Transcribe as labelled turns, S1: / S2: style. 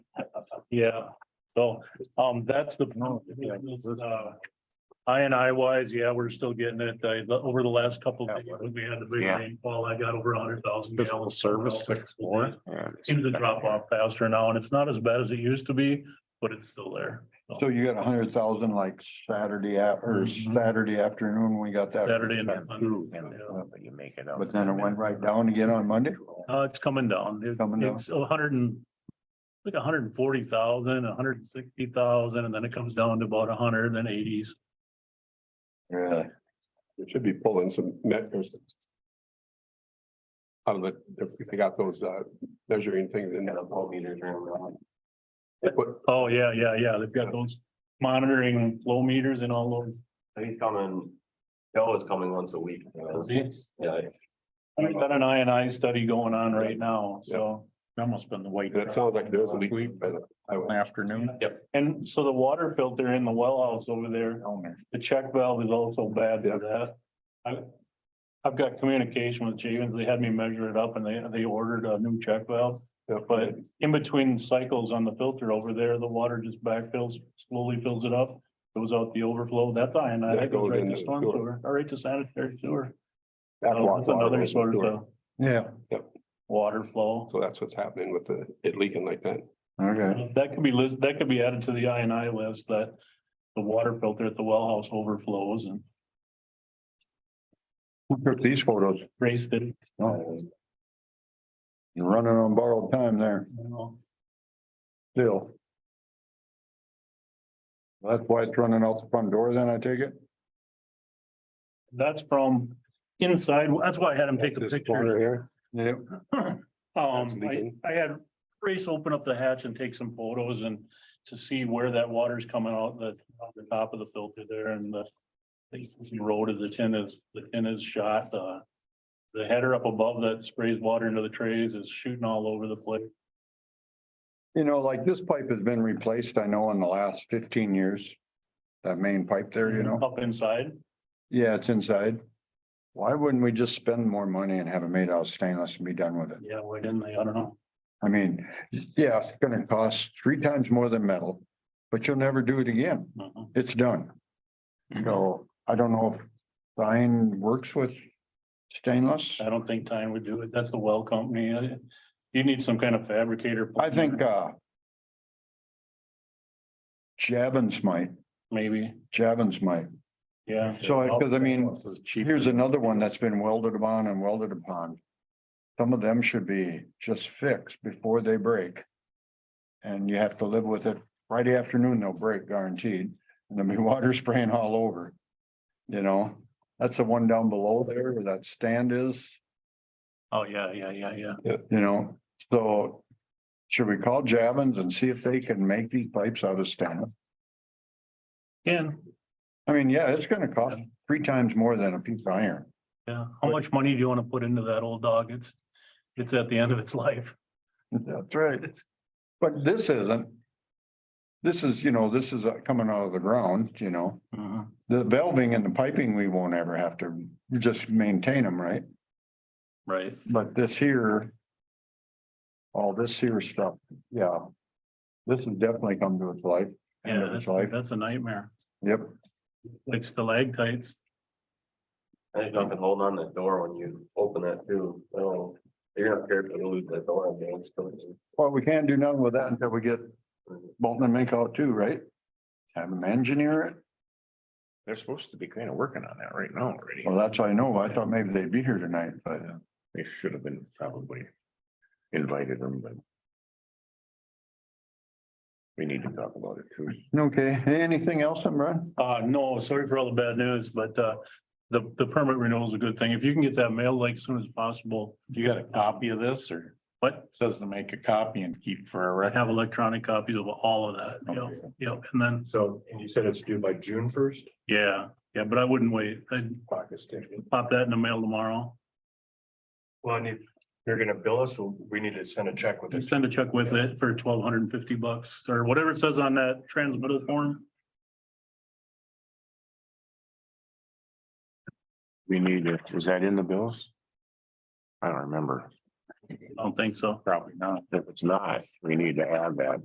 S1: Yeah, so, um, that's the, uh, I and I wise, yeah, we're still getting it, I, the- over the last couple of days, when we had the big
S2: Yeah.
S1: rainfall, I got over a hundred thousand
S3: Physical
S1: gallons.
S3: service
S1: Seems to drop off faster now, and it's not as bad as it used to be, but it's still there.
S4: So you got a hundred thousand like Saturday a- or
S1: Mhm.
S4: Saturday afternoon, we got that.
S1: Saturday and Sunday. Yeah.
S2: But oh you make it up.
S4: But then it went right down again on Monday?
S1: Uh, it's coming down. It-
S4: Coming down.
S1: It's a hundred and, like a hundred and forty thousand, a hundred and sixty thousand, and then it comes down to about a hundred and eighties.
S4: Really?
S3: They should be pulling some net or some. Out of the, if they got those uh measuring things in. They put,
S1: Oh, yeah, yeah, yeah, they've got those monitoring flow meters and all those.
S5: He's coming, Joe is coming once a week. you know. Yeah,
S1: We've got an I and I study going on right now, so that must have been the white.
S3: that sounds like there's a leak. by the highway.
S4: Afternoon.
S1: And so the water filter in the well house over there, the check valve is also bad for that. I, I've got communication with Javens, they had me measure it up and they, they ordered a new check valve.
S3: Yeah,
S1: But in between cycles on the filter over there, the water just backfills, slowly fills it up, goes out the overflow, that's ionized,
S3: That
S1: that goes
S3: goes
S1: right
S3: into
S1: to
S3: the
S1: storm
S3: sewer.
S1: sewer, or right to sanitary sewer.
S3: That's
S1: So That's another sort of
S3: water.
S1: the
S4: Yeah,
S1: water flow.
S3: So that's what's happening with the, it leaking like that.
S4: okay.
S1: That could be list, that could be added to the I and I list that the water filter at the wellhouse overflows and
S4: Who took these photos?
S1: raised it.
S4: Oh. You're running on borrowed time there
S1: you know.
S4: still. That's why it's running out the front door then, I take it?
S1: That's from inside, that's why I had him take the
S3: This
S1: picture.
S3: corner here.
S4: Yeah.
S1: Um,
S3: That's
S1: I,
S3: leaking.
S1: I had Grace open up the hatch and take some photos and to see where that water's coming out the, out the top of the filter there and the. The road of the tin is, the tin is shot, uh. The header up above that sprays water into the trays is shooting all over the place.
S4: You know, like this pipe has been replaced, I know, in the last fifteen years. That main pipe there, you know?
S1: Up inside.
S4: Yeah, it's inside. Why wouldn't we just spend more money and have it made out of stainless and be done with it?
S1: Yeah, why didn't they? I don't know.
S4: I mean, yeah, it's gonna cost three times more than metal, but you'll never do it again.
S1: Uh-uh.
S4: It's done. So I don't know if Stein works with stainless.
S1: I don't think Tyne would do it. That's a well company. I- You need some kind of fabricator.
S4: I think, uh, Javins might,
S1: Maybe,
S4: Javins might.
S1: yeah.
S4: So, I- cause I mean, here's another one that's been welded upon and welded upon. Some of them should be just fixed before they break. And you have to live with it. Friday afternoon, they'll break guaranteed, and there'll be water spraying all over. You know, that's the one down below there where that stand is,
S1: Oh, yeah, yeah, yeah, yeah.
S4: you know, so. Should we call Javins and see if they can make these pipes out of stainless?
S1: Ken,
S4: I mean, yeah, it's gonna cost three times more than a piece of iron.
S1: yeah, how much money do you wanna put into that old dog? It's, it's at the end of its life.
S4: That's right. But this isn't. This is, you know, this is uh, coming out of the ground, you know,
S1: Mhm.
S4: the valving and the piping, we won't ever have to you just maintain them, right?
S1: Right,
S4: But this here. All this here stuff, yeah. This has definitely come to its life, end
S1: yeah,
S4: of its
S1: that's,
S4: life.
S1: that's a nightmare,
S4: Yep,
S1: like stalactites.
S5: And you can hold on that door when you open that too, so you're not careful to lose that door. I mean, it's going
S4: well, we can't do nothing with that until we get Bolton and Minkow too, right? Have them engineer it.
S2: They're supposed to be kind of working on that right now already.
S4: Well, that's what I know. I thought maybe they'd be here tonight, but
S2: They should have been probably invited them, but. We need to talk about it too.
S4: okay, anything else, Brad?
S1: Uh, no, sorry for all the bad news, but, uh, the, the permit renewal is a good thing. If you can get that mailed like soon as possible. You got a copy of this or? What? Says to make a copy and keep for. Have electronic copies of all of that, yep, yep, and then,
S5: So, and you said it's due by June first?
S1: yeah, yeah, but I wouldn't wait. I'd pop that in the mail tomorrow.
S5: Well, and if you're gonna bill us, we need to send a check with
S1: Just Send a check with it for twelve hundred and fifty bucks or whatever it says on that transmitted form.
S2: We need to, was that in the bills? I don't remember.
S1: I don't think so.
S2: Probably not. If it's not, we need to add that.